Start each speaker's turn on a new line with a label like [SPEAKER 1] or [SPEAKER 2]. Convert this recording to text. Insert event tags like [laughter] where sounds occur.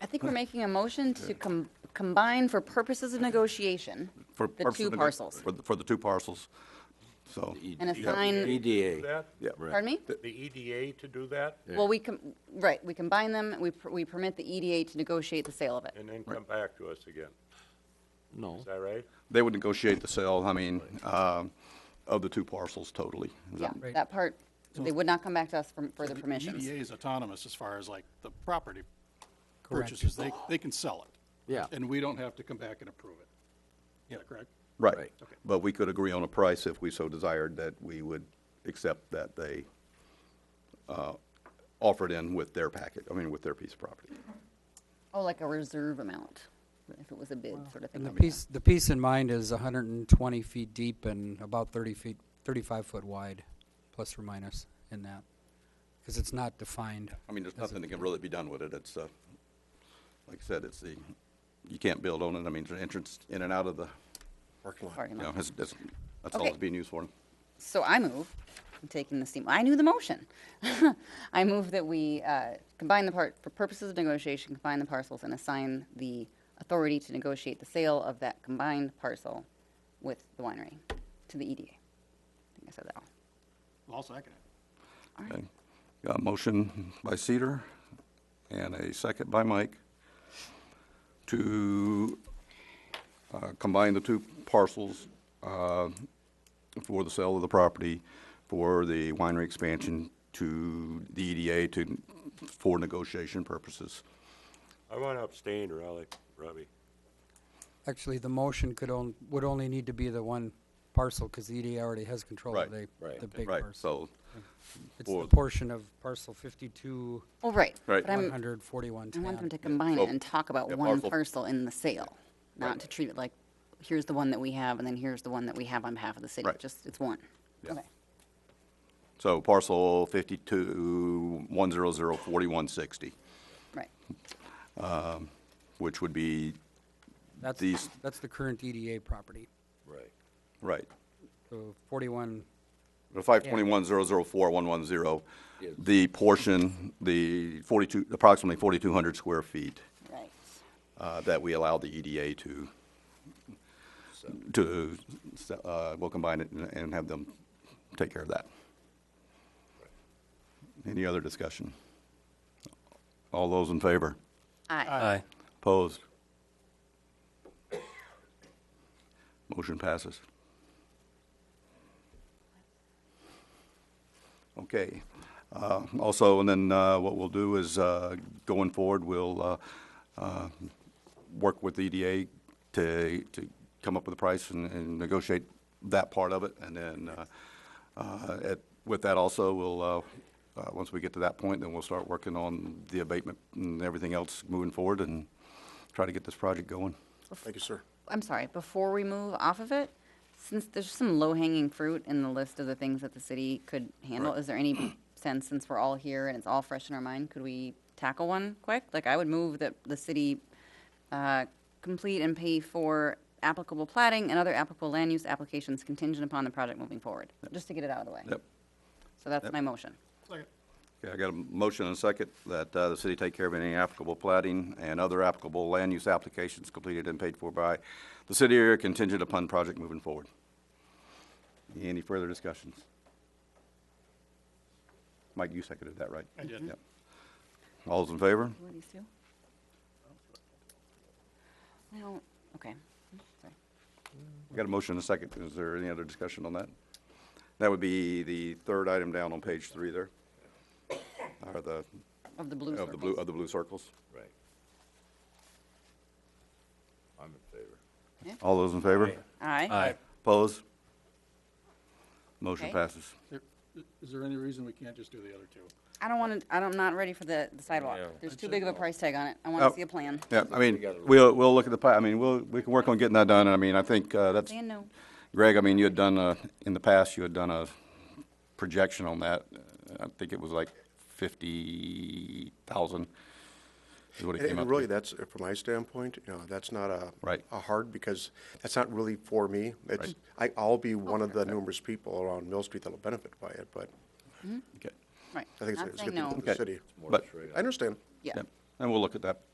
[SPEAKER 1] I think we're making a motion to com- combine for purposes of negotiation,
[SPEAKER 2] for
[SPEAKER 1] the
[SPEAKER 2] purposes
[SPEAKER 1] two
[SPEAKER 2] of nego-
[SPEAKER 1] parcels.
[SPEAKER 2] For, the- for the two parcels, so.
[SPEAKER 1] And assign,
[SPEAKER 3] EDA.
[SPEAKER 4] that?
[SPEAKER 2] Yeah.
[SPEAKER 1] pardon me?
[SPEAKER 4] The EDA to do that?
[SPEAKER 1] Well, we, com- right, we combine them, we per- we permit the EDA to negotiate the sale of it.
[SPEAKER 4] And then come back to us again.
[SPEAKER 3] No,
[SPEAKER 4] Is that right?
[SPEAKER 2] They would negotiate the sale, I mean, um, of the two parcels totally. Is
[SPEAKER 1] Yeah,
[SPEAKER 2] that-
[SPEAKER 5] Right.
[SPEAKER 1] that part, they would not come back to us for further
[SPEAKER 6] The
[SPEAKER 1] permissions.
[SPEAKER 5] E
[SPEAKER 6] EDA is autonomous as far as like the property
[SPEAKER 5] Correct.
[SPEAKER 6] purchases. They, they can sell it.
[SPEAKER 3] Yeah.
[SPEAKER 6] And we don't have to come back and approve it. Yeah, correct?
[SPEAKER 2] Right.
[SPEAKER 3] Right.
[SPEAKER 2] But we could agree on a price if we so desired that we would accept that they uh, offer it in with their packet, I mean, with their piece of property.
[SPEAKER 1] Oh, like a reserve amount, if it was a bid sort of thing.
[SPEAKER 5] And the
[SPEAKER 1] like that.
[SPEAKER 5] piece, the piece in mind is hundred and twenty feet deep and about thirty feet, thirty-five foot wide, plus or minus in that. Because it's not defined.
[SPEAKER 2] I mean, there's nothing that can really be done with it. It's, uh, like I said, it's the, you can't build on it. I mean, there's an entrance in and out of the,
[SPEAKER 1] Parking lot.
[SPEAKER 2] you know, that's, that's that's all
[SPEAKER 1] Okay.
[SPEAKER 2] it's being used for.
[SPEAKER 1] So I move, I'm taking the steam, I knew the motion. [laughs] I move that we uh, combine the part, for purposes of negotiation, combine the parcels and assign the authority to negotiate the sale of that combined parcel with the winery to the EDA. I think I said that all.
[SPEAKER 6] I'll second it.
[SPEAKER 2] Okay. Got a motion by Cedar and a second by Mike to uh, combine the two parcels uh, for the sale of the property for the winery expansion to the EDA to, for negotiation purposes.
[SPEAKER 4] I want to abstain, Raleigh, Robbie.
[SPEAKER 5] Actually, the motion could on, would only need to be the one parcel, because the EDA already has control of the,
[SPEAKER 2] Right,
[SPEAKER 3] right.
[SPEAKER 5] the big
[SPEAKER 2] Right, so,
[SPEAKER 5] parcel. It's the
[SPEAKER 2] Or-
[SPEAKER 5] portion of parcel fifty-two,
[SPEAKER 1] Oh, right.
[SPEAKER 2] Right.
[SPEAKER 1] But
[SPEAKER 5] one
[SPEAKER 1] I'm,
[SPEAKER 5] hundred, forty-one,
[SPEAKER 1] I want them to
[SPEAKER 5] ten.
[SPEAKER 1] combine it
[SPEAKER 2] So,
[SPEAKER 1] and talk about
[SPEAKER 2] yeah,
[SPEAKER 1] one
[SPEAKER 2] parcel-
[SPEAKER 1] parcel in the sale, not to treat it like, here's the one that we have, and then here's the one that we have on behalf of the city.
[SPEAKER 2] Right.
[SPEAKER 1] Just, it's one.
[SPEAKER 2] Yeah.
[SPEAKER 1] Okay.
[SPEAKER 2] so parcel fifty-two, one zero zero forty-one sixty,
[SPEAKER 1] Right.
[SPEAKER 2] which would be,
[SPEAKER 5] That's,
[SPEAKER 2] these-
[SPEAKER 5] that's the current EDA property.
[SPEAKER 3] right.
[SPEAKER 2] right,
[SPEAKER 5] So forty-one,
[SPEAKER 2] The five twenty-one zero zero four one one zero,
[SPEAKER 3] Yes.
[SPEAKER 2] the portion, the forty-two, approximately forty-two hundred square feet,
[SPEAKER 1] Right.
[SPEAKER 2] uh, that we allow the EDA to, to, uh, we'll combine it and- and have them take care of that. Any other discussion? All those in favor?
[SPEAKER 1] Aye.
[SPEAKER 2] Opposed? Motion passes. Okay. Uh, Also, and then uh, what we'll do is, uh, going forward, we'll uh, uh, work with EDA to, to come up with a price and- and negotiate that part of it. And then uh, uh, at- with that also, we'll, uh, uh, once we get to that point, then we'll start working on the abatement and everything else moving forward and try to get this project going.
[SPEAKER 7] Thank you, sir.
[SPEAKER 1] I'm sorry, before we move off of it, since there's some low-hanging fruit in the list of the things that the city could handle, is there any [clears throat] sense, since we're all here and it's all fresh in our mind, could we tackle one quick? Like, I would move that the city uh, complete and pay for applicable plating and other applicable land use applications contingent upon the project moving forward, just to get it out of the way.
[SPEAKER 2] Yep.
[SPEAKER 1] So that's my motion.
[SPEAKER 6] Second.
[SPEAKER 2] Okay, I got a motion and a second that uh, the city take care of any applicable plating and other applicable land use applications completed and paid for by the city area contingent upon project moving forward. Any further discussions? Mike, you seconded that, right? I
[SPEAKER 6] did.
[SPEAKER 2] All those in favor?
[SPEAKER 1] Who are these two? Well, okay. Sorry.
[SPEAKER 2] We Got a motion and a second. Is there any other discussion on that? That would be the third item down on page three there. Or the,
[SPEAKER 1] Of the blue
[SPEAKER 2] of the blue,
[SPEAKER 1] circles.
[SPEAKER 2] of the blue circles.
[SPEAKER 3] Right. I'm in favor.
[SPEAKER 2] All those in favor?
[SPEAKER 1] Aye.
[SPEAKER 2] Opposed? Motion
[SPEAKER 1] Okay.
[SPEAKER 2] passes.
[SPEAKER 6] There- Is there any reason we can't just do the other two?
[SPEAKER 1] I don't want to, I'm not ready for the the sidewalk.
[SPEAKER 3] Yeah.
[SPEAKER 1] There's too big of a price tag on it. I
[SPEAKER 7] Oh.
[SPEAKER 1] want to see a plan.
[SPEAKER 2] Yeah, I mean, we'll, we'll look at the, pi- I mean, we'll, we can work on getting that done, and I mean, I think uh, that's,
[SPEAKER 1] Saying no.
[SPEAKER 2] Greg, I mean, you had done, a- in the past, you had done a projection on that. I think it was like fifty thousand is what it
[SPEAKER 7] And-
[SPEAKER 2] came up
[SPEAKER 7] And really,
[SPEAKER 2] with.
[SPEAKER 7] that's, uh, from my standpoint, you know, that's not a.
[SPEAKER 2] Right.
[SPEAKER 7] A hard, because that's not really for me. It's, I, I'll be one of the numerous people around Mill Street that'll benefit by it, but
[SPEAKER 2] Okay.
[SPEAKER 1] Right.
[SPEAKER 7] I think it's-
[SPEAKER 1] Not
[SPEAKER 7] it's
[SPEAKER 1] saying
[SPEAKER 7] good for
[SPEAKER 1] no.
[SPEAKER 7] the city.
[SPEAKER 2] But,
[SPEAKER 7] I understand.
[SPEAKER 1] Yeah.
[SPEAKER 2] yeah, and we'll look at that